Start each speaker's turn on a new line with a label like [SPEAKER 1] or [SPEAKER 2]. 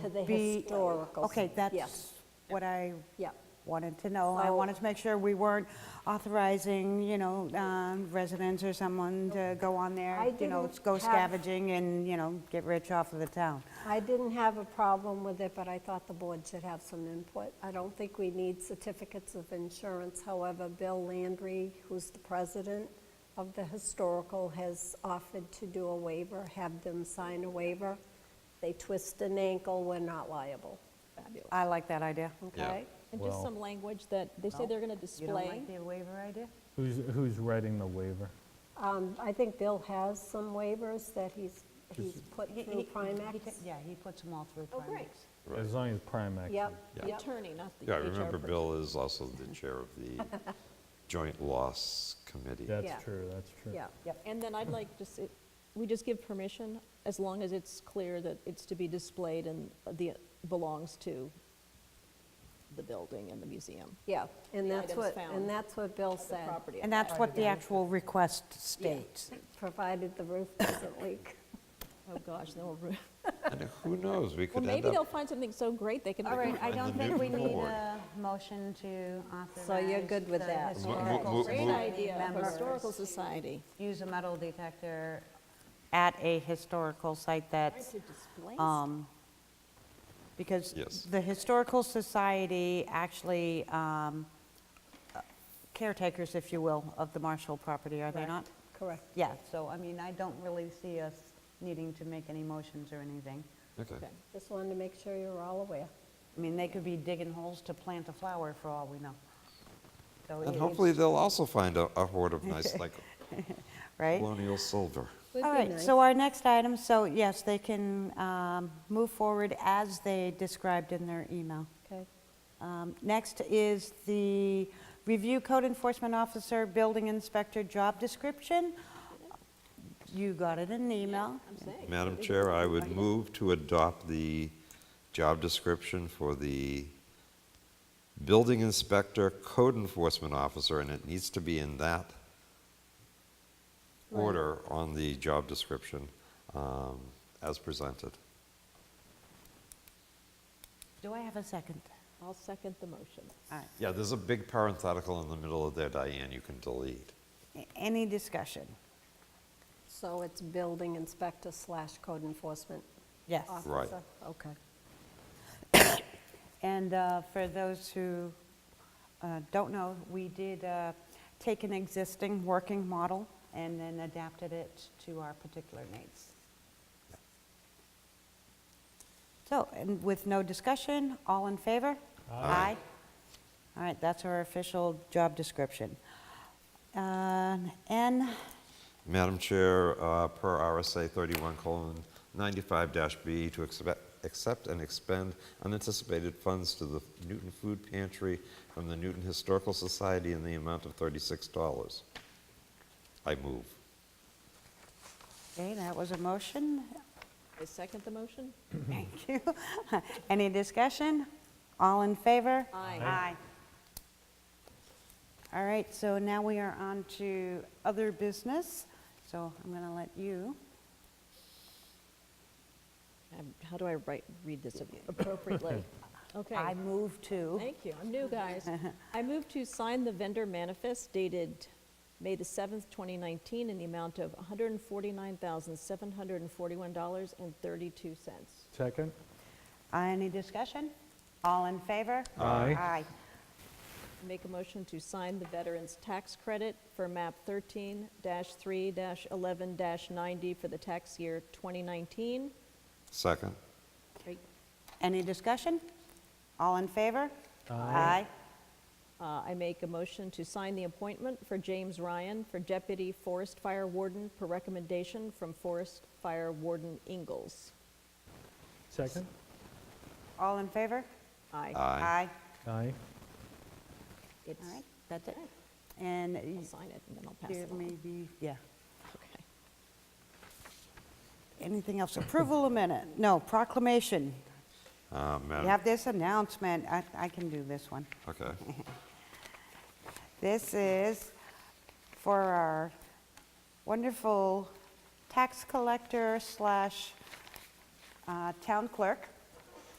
[SPEAKER 1] to the
[SPEAKER 2] be-
[SPEAKER 1] historical.
[SPEAKER 2] Okay,
[SPEAKER 1] Yes.
[SPEAKER 2] that's what I
[SPEAKER 1] Yeah.
[SPEAKER 2] wanted to know. I
[SPEAKER 1] So-
[SPEAKER 2] wanted to make sure we weren't authorizing, you know, um, residents or someone to go on
[SPEAKER 1] I
[SPEAKER 2] there, you know,
[SPEAKER 1] didn't
[SPEAKER 2] go
[SPEAKER 1] have-
[SPEAKER 2] scavenging and, you know, get rich off of the town.
[SPEAKER 1] I didn't have a problem with it, but I thought the board should have some input. I don't think we need certificates of insurance. However, Bill Landry, who's the president of the historical, has offered to do a waiver, have them sign a waiver. They twist an ankle, we're not liable,
[SPEAKER 3] Fabulous.
[SPEAKER 2] I like that idea.
[SPEAKER 1] okay?
[SPEAKER 3] And just some language that, they say they're going to
[SPEAKER 2] You don't
[SPEAKER 3] display.
[SPEAKER 2] like the waiver idea?
[SPEAKER 4] Who's, who's writing the waiver?
[SPEAKER 1] Um, I think Bill has some waivers that he's, he's put through Primex.
[SPEAKER 2] Yeah, he puts them all through
[SPEAKER 3] Oh, great.
[SPEAKER 2] Primex.
[SPEAKER 4] As long as Primex. is-
[SPEAKER 1] Yep,
[SPEAKER 3] The
[SPEAKER 1] yep.
[SPEAKER 3] attorney, not the
[SPEAKER 5] Yeah, I
[SPEAKER 3] HR
[SPEAKER 5] remember
[SPEAKER 3] person.
[SPEAKER 5] Bill is also the chair of the Joint Loss Committee.
[SPEAKER 1] Yeah.
[SPEAKER 4] That's true, that's true.
[SPEAKER 1] Yeah,
[SPEAKER 3] And then I'd like, just, it- we just give permission, as long as it's clear that it's to be displayed and the, belongs to the building and the museum.
[SPEAKER 1] yeah, and
[SPEAKER 3] The
[SPEAKER 1] that's
[SPEAKER 3] items
[SPEAKER 1] what,
[SPEAKER 3] found
[SPEAKER 1] and that's what Bill
[SPEAKER 3] The
[SPEAKER 1] said,
[SPEAKER 3] property.
[SPEAKER 2] And that's what the actual request states.
[SPEAKER 1] provided the roof doesn't leak.
[SPEAKER 3] Oh, gosh, then we'll, ru-
[SPEAKER 5] And who knows, we
[SPEAKER 3] well,
[SPEAKER 5] could end
[SPEAKER 3] maybe they'll
[SPEAKER 5] up,
[SPEAKER 3] find something so great they can.
[SPEAKER 2] All right, I
[SPEAKER 5] And the
[SPEAKER 2] don't
[SPEAKER 5] new
[SPEAKER 2] think we need
[SPEAKER 5] board.
[SPEAKER 2] a motion to authorize.
[SPEAKER 1] you're good with
[SPEAKER 2] the
[SPEAKER 1] that? Mo-
[SPEAKER 5] mo-
[SPEAKER 2] Historical
[SPEAKER 5] mo-
[SPEAKER 3] Great
[SPEAKER 5] mo-
[SPEAKER 2] Society
[SPEAKER 3] idea, of historical
[SPEAKER 2] members
[SPEAKER 3] society.
[SPEAKER 2] use a metal detector at a historical site that's
[SPEAKER 3] To display
[SPEAKER 2] um, Because
[SPEAKER 5] Yes.
[SPEAKER 2] the Historical Society actually um, caretakers, if you will, of the Marshall property, are they not?
[SPEAKER 1] Correct.
[SPEAKER 2] Yeah, so, I mean, I don't really see us needing to make any motions or anything.
[SPEAKER 5] okay.
[SPEAKER 3] Okay.
[SPEAKER 1] Just wanted to make sure you're all aware.
[SPEAKER 2] I mean, they could be digging holes to plant a flower for all we know. So
[SPEAKER 5] And
[SPEAKER 2] it-
[SPEAKER 5] hopefully they'll also find a a hoard of nice, like
[SPEAKER 2] Right?
[SPEAKER 5] colonial silver.
[SPEAKER 1] Would
[SPEAKER 2] All
[SPEAKER 1] be
[SPEAKER 2] right,
[SPEAKER 1] nice.
[SPEAKER 2] so our next item, so yes, they can um, move forward as they described in their email.
[SPEAKER 1] Okay.
[SPEAKER 2] Um, Next is the review code enforcement officer, building inspector job description. You got it in an email.
[SPEAKER 3] I'm saying.
[SPEAKER 5] Madam Chair, I would move to adopt the job description for the building inspector, code enforcement officer, and it needs to be in that order on the job description um, as presented.
[SPEAKER 2] Do I have a second?
[SPEAKER 3] I'll second the motion.
[SPEAKER 2] All right,
[SPEAKER 5] Yeah, there's a big parenthetical in the middle of there, Diane, you can delete.
[SPEAKER 2] A- any discussion?
[SPEAKER 1] So it's building inspector slash code enforcement
[SPEAKER 2] Yes.
[SPEAKER 5] Right.
[SPEAKER 1] officer? Okay.
[SPEAKER 2] And uh, for those who uh, don't know, we did uh, take an existing working model and then adapted it to our particular needs. So, and with no discussion, all in favor? Aye. All right, that's our official job description. Um, N,
[SPEAKER 5] Madam Chair, uh, per RSA 31 95 B, to accept- accept and expend unanticipated funds to the Newton Food Pantry from the Newton Historical Society in the amount of $36. I move.
[SPEAKER 2] okay, that was a motion.
[SPEAKER 3] I second the motion?
[SPEAKER 2] Thank you. Any discussion? All in favor?
[SPEAKER 3] Aye.
[SPEAKER 2] Aye. All right, so now we are on to other business, so I'm going to let you.
[SPEAKER 3] Um, How do I write, read this appropriately? Okay.
[SPEAKER 2] I move to.
[SPEAKER 3] Thank you, I'm new, guys. I move to sign the vendor manifest dated May the 7th, 2019, in the amount of $149,741.32.
[SPEAKER 4] Second?
[SPEAKER 2] Uh, Any discussion? All in favor?
[SPEAKER 4] Aye.
[SPEAKER 2] Aye.
[SPEAKER 3] Make a motion to sign the veterans' tax credit for MAP 13-3-11-90 for the tax year 2019.
[SPEAKER 5] Second?
[SPEAKER 3] Great.
[SPEAKER 2] Any discussion? All in favor? Aye.
[SPEAKER 3] Uh, I make a motion to sign the appointment for James Ryan for Deputy Forest Fire Warden per recommendation from Forest Fire Warden Ingalls.
[SPEAKER 4] Second?
[SPEAKER 2] All in favor?
[SPEAKER 3] Aye.
[SPEAKER 2] Aye.
[SPEAKER 4] Aye.
[SPEAKER 3] It's,
[SPEAKER 2] All right, that's it. And
[SPEAKER 3] I'll
[SPEAKER 2] y-
[SPEAKER 3] sign it and then I'll pass
[SPEAKER 2] there
[SPEAKER 3] it
[SPEAKER 2] may
[SPEAKER 3] on.
[SPEAKER 2] be, yeah.
[SPEAKER 3] Okay.
[SPEAKER 2] Anything else? Approval of minute? No, proclamation.
[SPEAKER 5] Uh,
[SPEAKER 2] We
[SPEAKER 5] Madam,
[SPEAKER 2] have this announcement. I I can do this one.
[SPEAKER 5] okay.
[SPEAKER 2] This is for our wonderful tax collector slash uh, town clerk,